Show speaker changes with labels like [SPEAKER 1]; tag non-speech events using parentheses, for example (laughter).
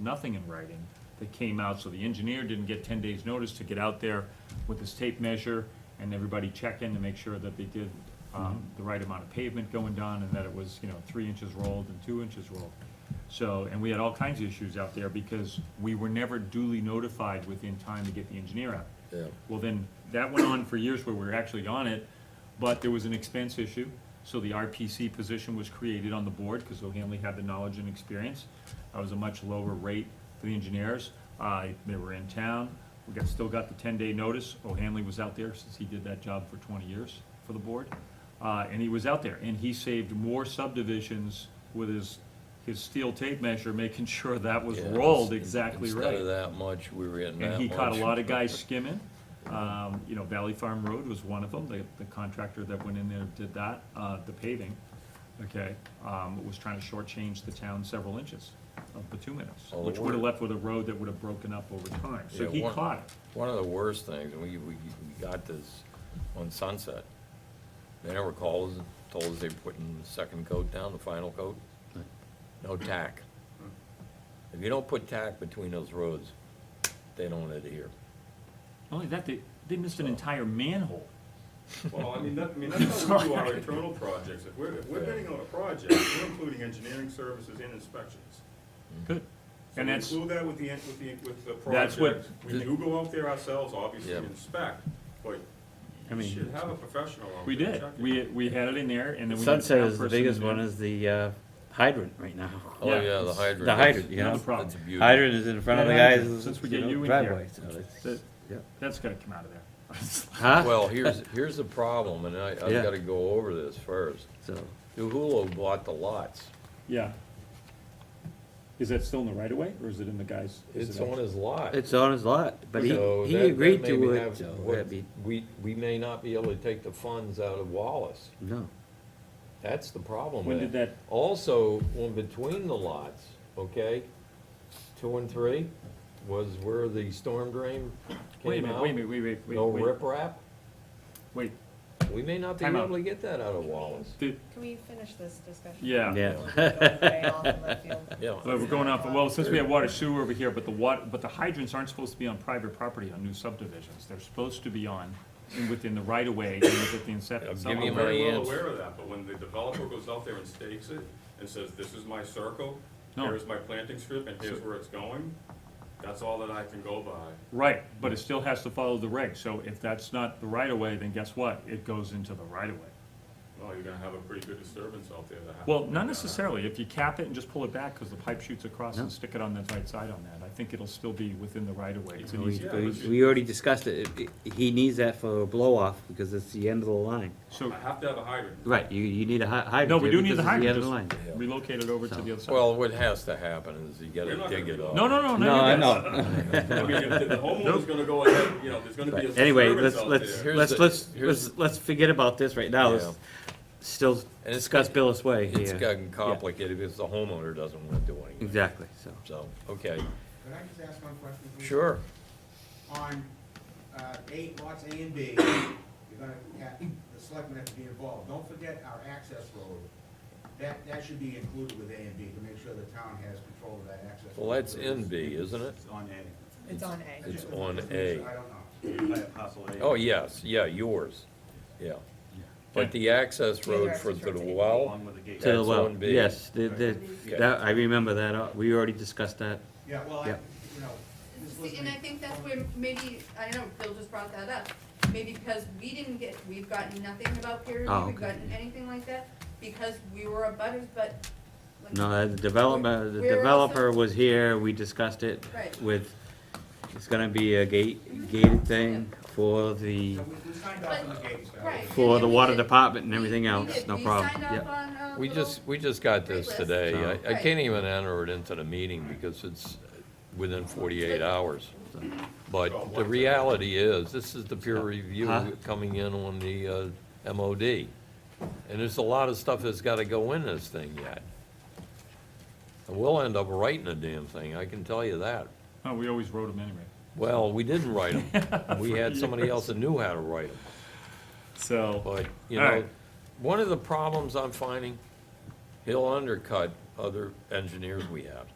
[SPEAKER 1] nothing in writing that came out, so the engineer didn't get ten days' notice to get out there with his tape measure and everybody check in to make sure that they did, um, the right amount of pavement going down and that it was, you know, three inches rolled and two inches rolled. So, and we had all kinds of issues out there because we were never duly notified within time to get the engineer out.
[SPEAKER 2] Yeah.
[SPEAKER 1] Well, then, that went on for years where we were actually on it, but there was an expense issue. So the RPC position was created on the board, because O'Hanley had the knowledge and experience. That was a much lower rate for the engineers. Uh, they were in town, we got, still got the ten-day notice. O'Hanley was out there since he did that job for twenty years for the board. Uh, and he was out there, and he saved more subdivisions with his, his steel tape measure, (laughs) making sure that was
[SPEAKER 2] Yeah,
[SPEAKER 1] rolled
[SPEAKER 2] in-
[SPEAKER 1] exactly right.
[SPEAKER 2] Instead of that much, we were in that much.
[SPEAKER 1] And he caught a lot
[SPEAKER 2] (laughs)
[SPEAKER 1] of guys skimming. Um, you know, Valley Farm Road was one of them, the, the contractor that went in there did that, uh, the paving, okay? Um, was trying to shortchange the town several inches of bituminous,
[SPEAKER 2] Oh,
[SPEAKER 1] which would have
[SPEAKER 2] one-
[SPEAKER 1] left with a road that would have broken up over time, so
[SPEAKER 2] Yeah,
[SPEAKER 1] he
[SPEAKER 2] one-
[SPEAKER 1] caught it.
[SPEAKER 2] One of the worst things, and we, we, we got this on Sunset. They never called, us, told us they were putting the second coat down, the final coat. No tack. If you don't put tack between those roads, they don't adhere.
[SPEAKER 1] Not Only that, they, they missed an entire manhole.
[SPEAKER 3] Well, I mean, that, I mean,
[SPEAKER 1] (laughs)
[SPEAKER 3] that's how we do our internal projects, if we're, if we're bidding on a project, we're including engineering services and inspections.
[SPEAKER 2] Mm-hmm.
[SPEAKER 1] Good.
[SPEAKER 3] So
[SPEAKER 1] And
[SPEAKER 3] we
[SPEAKER 1] that's,
[SPEAKER 3] include that with the, en- with the, with the
[SPEAKER 1] That's what-
[SPEAKER 3] project, we do go out there ourselves, obviously,
[SPEAKER 2] Yeah.
[SPEAKER 3] and inspect, but
[SPEAKER 4] I
[SPEAKER 3] you
[SPEAKER 4] mean-
[SPEAKER 3] should have a professional out
[SPEAKER 1] we
[SPEAKER 3] there
[SPEAKER 1] did,
[SPEAKER 3] checking.
[SPEAKER 1] we, we had it in there, and then we. had a
[SPEAKER 4] Sunset
[SPEAKER 1] town
[SPEAKER 4] is the
[SPEAKER 1] person in
[SPEAKER 4] biggest
[SPEAKER 1] there.
[SPEAKER 4] one is the uh, hydrant right now.
[SPEAKER 2] Oh,
[SPEAKER 1] Yeah,
[SPEAKER 2] yeah, the
[SPEAKER 1] it's-
[SPEAKER 2] hydrant.
[SPEAKER 4] the hydrant,
[SPEAKER 2] that's-
[SPEAKER 4] you know?
[SPEAKER 1] Another problem.
[SPEAKER 2] That's a beauty.
[SPEAKER 4] Hydrant is in front of the
[SPEAKER 1] Yeah,
[SPEAKER 4] guy's
[SPEAKER 1] since we
[SPEAKER 4] you
[SPEAKER 1] get
[SPEAKER 4] know,
[SPEAKER 1] you in here.
[SPEAKER 4] driveway. so it's-
[SPEAKER 1] That-
[SPEAKER 4] yeah.
[SPEAKER 1] That's gotta come out of there. (laughs)
[SPEAKER 4] Huh?
[SPEAKER 2] Well, here's, here's the problem, and I, I've
[SPEAKER 4] Yeah.
[SPEAKER 2] gotta go over this first.
[SPEAKER 4] So,
[SPEAKER 2] Uhulo bought the lots.
[SPEAKER 1] Yeah. Is that still in the right of way, or is it in the guy's? is
[SPEAKER 2] It's
[SPEAKER 1] it
[SPEAKER 2] on his lot.
[SPEAKER 4] it's on his lot, but he,
[SPEAKER 2] So
[SPEAKER 4] he
[SPEAKER 2] that- that
[SPEAKER 4] agreed
[SPEAKER 2] may
[SPEAKER 4] to it,
[SPEAKER 2] have-
[SPEAKER 4] so
[SPEAKER 2] what-
[SPEAKER 4] that'd be,
[SPEAKER 2] We, we may not be able to take the funds out of Wallace.
[SPEAKER 4] no.
[SPEAKER 2] That's the problem
[SPEAKER 1] When
[SPEAKER 2] with
[SPEAKER 1] did
[SPEAKER 2] it.
[SPEAKER 1] that,
[SPEAKER 2] Also, in between the lots, okay, two and three was where the storm drain
[SPEAKER 1] wait a
[SPEAKER 2] came
[SPEAKER 1] minute,
[SPEAKER 2] out.
[SPEAKER 1] wait a minute, wait, wait, wait.
[SPEAKER 2] No
[SPEAKER 1] wait,
[SPEAKER 2] riprap.
[SPEAKER 1] Wait,
[SPEAKER 2] We may not be
[SPEAKER 1] Time out.
[SPEAKER 2] able to get that out of Wallace.
[SPEAKER 1] did,
[SPEAKER 5] Can we finish this discussion?
[SPEAKER 1] yeah.
[SPEAKER 4] Yeah.
[SPEAKER 5] Don't go way off in left field.
[SPEAKER 2] Yeah.
[SPEAKER 1] But uh, we're going off, well, since we have water sewer over here, but the water, but the hydrants aren't supposed to be on private property on new subdivisions. They're supposed to be on, and within the right of way, and within the
[SPEAKER 2] I'll
[SPEAKER 1] inception.
[SPEAKER 2] give
[SPEAKER 3] I'm
[SPEAKER 2] you
[SPEAKER 1] somewhere.
[SPEAKER 2] my-
[SPEAKER 3] very well
[SPEAKER 2] Marianne's-
[SPEAKER 3] aware of that, but when the developer goes out there and stakes it and says, this is my circle,
[SPEAKER 1] No.
[SPEAKER 3] here's my planting strip, and here's where it's going, that's all that I can go by.
[SPEAKER 1] Right, but it still has to follow the regs, so if that's not the right of way, then guess what? It goes into the right of way.
[SPEAKER 3] Well, you're gonna have a pretty good disturbance out there that happens.
[SPEAKER 1] Well, not necessarily, if you cap it and just pull it back, because the pipe shoots across
[SPEAKER 4] No.
[SPEAKER 1] and stick it on the right side on that, I think it'll still be within the right of way. It's an
[SPEAKER 4] We,
[SPEAKER 1] easy,
[SPEAKER 3] Yeah,
[SPEAKER 4] we-
[SPEAKER 3] but you-
[SPEAKER 4] we already discussed it. It- it- He needs that for a blow off because it's the end of the line.
[SPEAKER 1] so
[SPEAKER 3] I have to have a hydrant.
[SPEAKER 4] Right, you, you need a hy- hydrant.
[SPEAKER 1] No, we
[SPEAKER 4] there
[SPEAKER 1] do need the
[SPEAKER 4] because it's
[SPEAKER 1] hydrant,
[SPEAKER 4] The end of
[SPEAKER 1] just
[SPEAKER 4] the line.
[SPEAKER 1] relocate it over to
[SPEAKER 4] So-
[SPEAKER 1] the other side.
[SPEAKER 2] Well, what has to happen is you
[SPEAKER 3] We're
[SPEAKER 2] gotta
[SPEAKER 3] not
[SPEAKER 2] dig
[SPEAKER 3] gonna
[SPEAKER 2] it
[SPEAKER 3] do
[SPEAKER 2] up.
[SPEAKER 1] No, Oh, no, no,
[SPEAKER 4] No,
[SPEAKER 1] no,
[SPEAKER 4] I
[SPEAKER 1] you guys. (laughs)
[SPEAKER 4] know.
[SPEAKER 3] I mean, if
[SPEAKER 4] (laughs)
[SPEAKER 3] the homeowner's gonna go ahead, you know, there's gonna be a disturbance out there.
[SPEAKER 4] Anyway, let's, let's,
[SPEAKER 2] Here's
[SPEAKER 4] let's,
[SPEAKER 2] the-
[SPEAKER 4] let's,
[SPEAKER 2] here's-
[SPEAKER 4] let's, let's forget about this right now.
[SPEAKER 2] Yeah.
[SPEAKER 4] Let's still
[SPEAKER 2] it's-
[SPEAKER 4] discuss Billis Way here.
[SPEAKER 2] It's gotten complicated because the homeowner doesn't wanna do anything,
[SPEAKER 4] Exactly, so.
[SPEAKER 2] so, okay,
[SPEAKER 6] Could I just ask one question? please?
[SPEAKER 2] sure.
[SPEAKER 6] On uh, eight lots A and B, you're gonna have, the selectmen have to be involved. Don't forget our access road. That, that should be included with A and B to make sure the town has control of that access.
[SPEAKER 2] Well,
[SPEAKER 6] road.
[SPEAKER 2] that's in B, isn't it?
[SPEAKER 7] It's on A.
[SPEAKER 5] It's on A.
[SPEAKER 2] It's on A.
[SPEAKER 6] I don't know.
[SPEAKER 7] I have parcel A.
[SPEAKER 2] Oh, yes, yeah, yours, yeah. But
[SPEAKER 1] Okay.
[SPEAKER 2] the access
[SPEAKER 5] Yeah,
[SPEAKER 2] road
[SPEAKER 5] your
[SPEAKER 2] for
[SPEAKER 5] access
[SPEAKER 2] to the
[SPEAKER 5] road's eight.
[SPEAKER 2] well,
[SPEAKER 7] Along with the gate.
[SPEAKER 4] To the
[SPEAKER 2] That's
[SPEAKER 4] well,
[SPEAKER 2] on B.
[SPEAKER 4] yes, the, the,
[SPEAKER 2] Okay.
[SPEAKER 4] that, I remember that, uh, we already discussed that.
[SPEAKER 6] Yeah, well, I, you
[SPEAKER 4] Yeah.
[SPEAKER 6] know, just
[SPEAKER 8] See, And I
[SPEAKER 6] listening.
[SPEAKER 8] think that's where maybe, I don't know, Bill just brought that up, maybe because we didn't get, we've gotten nothing about peer
[SPEAKER 4] Oh,
[SPEAKER 8] review, we've
[SPEAKER 4] okay.
[SPEAKER 8] gotten anything like that, because we were a butters, but. like-
[SPEAKER 4] No, uh, the development, the
[SPEAKER 8] We're also-
[SPEAKER 4] developer was here, we discussed it
[SPEAKER 8] Right.
[SPEAKER 4] with, it's gonna be a gate, gated thing for the,
[SPEAKER 6] So we, we signed off on the gate stuff.
[SPEAKER 8] Right.
[SPEAKER 4] for
[SPEAKER 8] and
[SPEAKER 4] the
[SPEAKER 8] we
[SPEAKER 4] water
[SPEAKER 8] did-
[SPEAKER 4] department and
[SPEAKER 8] we-
[SPEAKER 4] everything
[SPEAKER 8] we
[SPEAKER 4] else,
[SPEAKER 8] did.
[SPEAKER 4] no
[SPEAKER 8] We
[SPEAKER 4] problem,
[SPEAKER 8] signed
[SPEAKER 4] yeah.
[SPEAKER 8] up on uh, a
[SPEAKER 2] we
[SPEAKER 8] little-
[SPEAKER 2] just, we just got
[SPEAKER 8] Great
[SPEAKER 2] this
[SPEAKER 8] list.
[SPEAKER 2] today, I- I
[SPEAKER 8] Right.
[SPEAKER 2] can't even enter it into the meeting because it's within forty-eight hours. But the reality is, this is the peer
[SPEAKER 4] Huh?
[SPEAKER 2] review coming in on the uh, MOD. And there's a lot of stuff that's gotta go in this thing yet. And we'll end up writing the damn thing, I can tell you that.
[SPEAKER 1] Oh, we always wrote them anyway.
[SPEAKER 2] Well, we didn't write them, we had somebody else that knew how to write them.
[SPEAKER 1] So,
[SPEAKER 2] But, you
[SPEAKER 1] All
[SPEAKER 2] know,
[SPEAKER 1] right.
[SPEAKER 2] one of the problems I'm finding, he'll undercut other engineers we have.